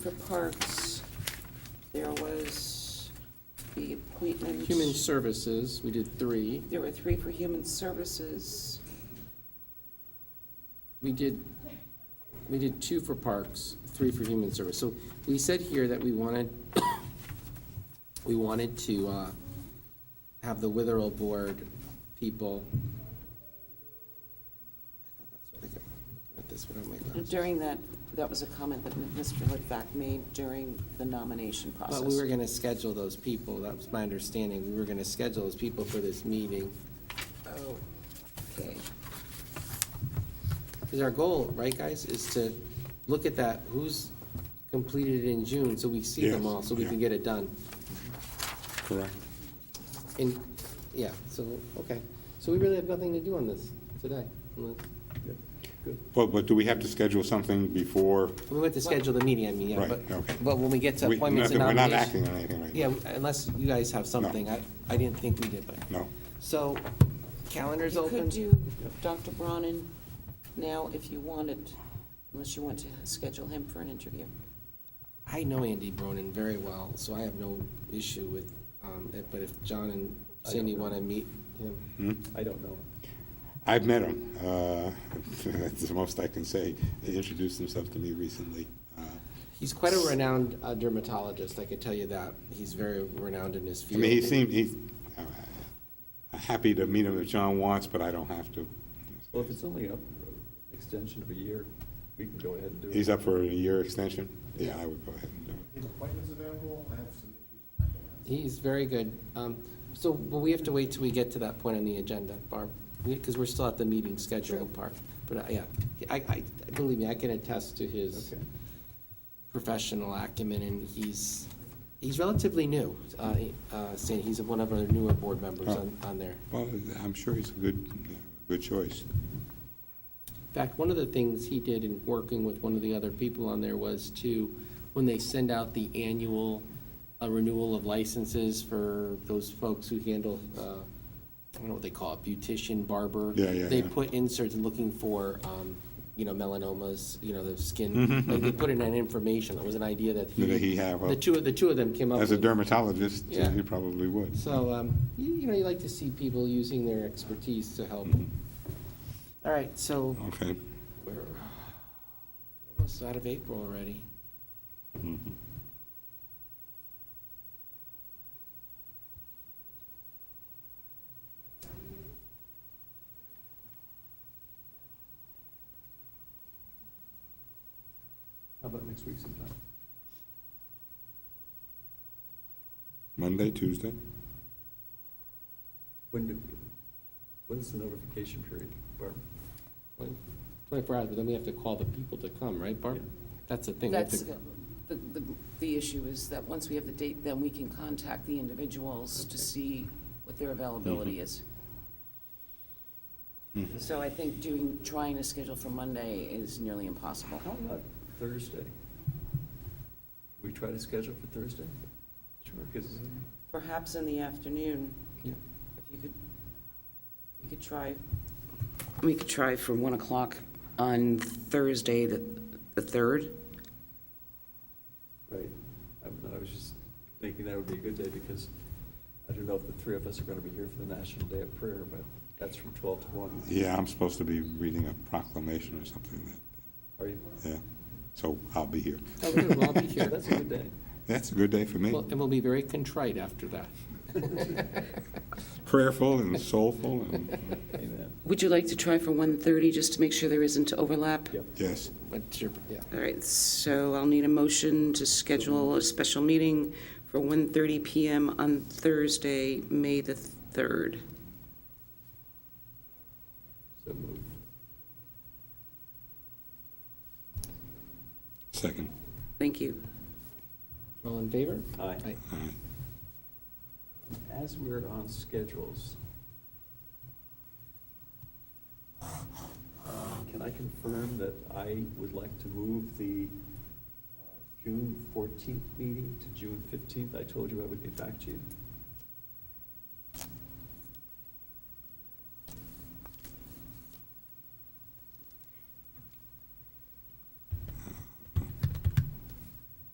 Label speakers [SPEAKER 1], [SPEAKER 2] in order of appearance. [SPEAKER 1] For parks, there was the appointment.
[SPEAKER 2] Human Services, we did three.
[SPEAKER 1] There were three for human services.
[SPEAKER 2] We did, we did two for parks, three for human service. So we said here that we wanted, we wanted to uh, have the Witherell Board people. I thought that's what I kept looking at this, what am I glasses?
[SPEAKER 1] During that, that was a comment that Mr. Litvak made during the nomination process.
[SPEAKER 2] But we were going to schedule those people, that was my understanding. We were going to schedule those people for this meeting.
[SPEAKER 1] Oh, okay.
[SPEAKER 2] Because our goal, right, guys, is to look at that, who's completed in June, so we see them
[SPEAKER 3] Yes,
[SPEAKER 2] all, so we can
[SPEAKER 3] yeah.
[SPEAKER 2] get it done.
[SPEAKER 3] Correct.
[SPEAKER 2] And, yeah, so, okay. So we really have nothing to do on this today. unless-
[SPEAKER 3] Well, but do we have to schedule something before?
[SPEAKER 2] We went to schedule the meeting, I mean, yeah,
[SPEAKER 3] Right,
[SPEAKER 2] but,
[SPEAKER 3] okay.
[SPEAKER 2] but when we get to
[SPEAKER 3] we-
[SPEAKER 2] appointments and
[SPEAKER 3] nothing- We're not
[SPEAKER 2] nominations.
[SPEAKER 3] acting on anything right now.
[SPEAKER 2] Yeah, unless you guys have something. I, I didn't think we did, but.
[SPEAKER 3] No.
[SPEAKER 2] So, calendar's
[SPEAKER 1] You
[SPEAKER 2] open.
[SPEAKER 1] could do Dr. Bronin now if you wanted, unless you want to schedule him for an interview.
[SPEAKER 2] I know Andy Bronin very well, so I have no issue with um, it, but if John and
[SPEAKER 4] I don't
[SPEAKER 2] Cindy
[SPEAKER 4] know.
[SPEAKER 2] want to meet him,
[SPEAKER 3] Hmm?
[SPEAKER 4] I don't know.
[SPEAKER 3] I've met him. uh, That's the most I can say. He introduced himself to me recently. Uh,
[SPEAKER 2] he's quite a renowned uh, dermatologist, I could tell you that. He's very renowned in his
[SPEAKER 3] I
[SPEAKER 2] field.
[SPEAKER 3] mean, he seemed, he's, uh, I'm happy to meet him if John wants, but I don't have to.
[SPEAKER 4] Well, if it's only up, extension of a year, we can go ahead and do it.
[SPEAKER 3] He's up for a year extension? Yeah, I would go ahead and do it.
[SPEAKER 5] If appointments available, I have some issues.
[SPEAKER 2] He's very good. Um, So, but we have to wait till we get to that point on the agenda, Barb, because we're still at the meeting schedule part. But, uh, yeah, I, I, believe me, I can attest to his
[SPEAKER 4] Okay.
[SPEAKER 2] professional acumen, and he's, he's relatively new. uh, uh, Sandy, he's one of our newer board members on, on there.
[SPEAKER 3] Well, I'm sure he's a good, uh, good choice.
[SPEAKER 2] In fact, one of the things he did in working with one of the other people on there was to, when they send out the annual uh, renewal of licenses for those folks who handle, uh, I don't know what they call it, beautician, barber.
[SPEAKER 3] Yeah, yeah,
[SPEAKER 2] They
[SPEAKER 3] yeah.
[SPEAKER 2] put inserts looking for, um, you know, melanomas, you know, the skin, like they put in an information, it was an idea that he.
[SPEAKER 3] Mm-hmm. That he had, well,
[SPEAKER 2] The two, the two of them came up with.
[SPEAKER 3] As a dermatologist,
[SPEAKER 2] Yeah.
[SPEAKER 3] he probably would.
[SPEAKER 2] So, um, you, you know, you like to see people using their expertise to help.
[SPEAKER 3] Mm-hmm.
[SPEAKER 2] All right, so
[SPEAKER 3] Okay.
[SPEAKER 2] we're almost out of April already.
[SPEAKER 4] Mm-hmm. How about next week sometime?
[SPEAKER 3] Monday, Tuesday?
[SPEAKER 4] When do, when's the notification period, Barb?
[SPEAKER 2] Twen- Twenty-four hours, but then we have to call the people to come, right, Barb?
[SPEAKER 4] Yeah.
[SPEAKER 2] That's the thing. we have
[SPEAKER 1] That's,
[SPEAKER 2] to-
[SPEAKER 1] the, the, the issue is that once we have the date, then we can contact the individuals to see what their availability
[SPEAKER 2] Mm-hmm.
[SPEAKER 1] is. So I think doing, trying to schedule for Monday is nearly impossible.
[SPEAKER 4] How about uh, Thursday? We try to schedule for Thursday? Sure. Because
[SPEAKER 1] Perhaps in the afternoon,
[SPEAKER 2] Yeah.
[SPEAKER 1] if you could, we could try, we could try for 1 o'clock on Thursday, the, the 3rd.
[SPEAKER 4] Right. I don't know, I was just thinking that would be a good day because I don't know if the three of us are going to be here for the National Day of Prayer, but that's from 12 to 1.
[SPEAKER 3] Yeah, I'm supposed to be reading a proclamation or something that,
[SPEAKER 4] Are you?
[SPEAKER 3] yeah, so I'll be here.
[SPEAKER 2] Oh, good, well, I'll be here.
[SPEAKER 4] That's a good day.
[SPEAKER 3] That's a good day for me.
[SPEAKER 2] Well, And we'll be very contrite after that.
[SPEAKER 3] Prayerful and soulful and,
[SPEAKER 4] Amen.
[SPEAKER 1] Would you like to try for 1:30, just to make sure there isn't overlap?
[SPEAKER 4] Yep.
[SPEAKER 3] yes.
[SPEAKER 2] What's your, yeah.
[SPEAKER 1] All right, so I'll need a motion to schedule a special meeting for 1:30 PM on Thursday, May the 3rd.
[SPEAKER 4] So moved.
[SPEAKER 3] Second.
[SPEAKER 1] Thank you.
[SPEAKER 2] All in favor?
[SPEAKER 4] Aye.
[SPEAKER 2] Aye.
[SPEAKER 3] All right.
[SPEAKER 4] As we're on schedules, um, can I confirm that I would like to move the uh, June 14th meeting to June 15th? I told you I would get back to you.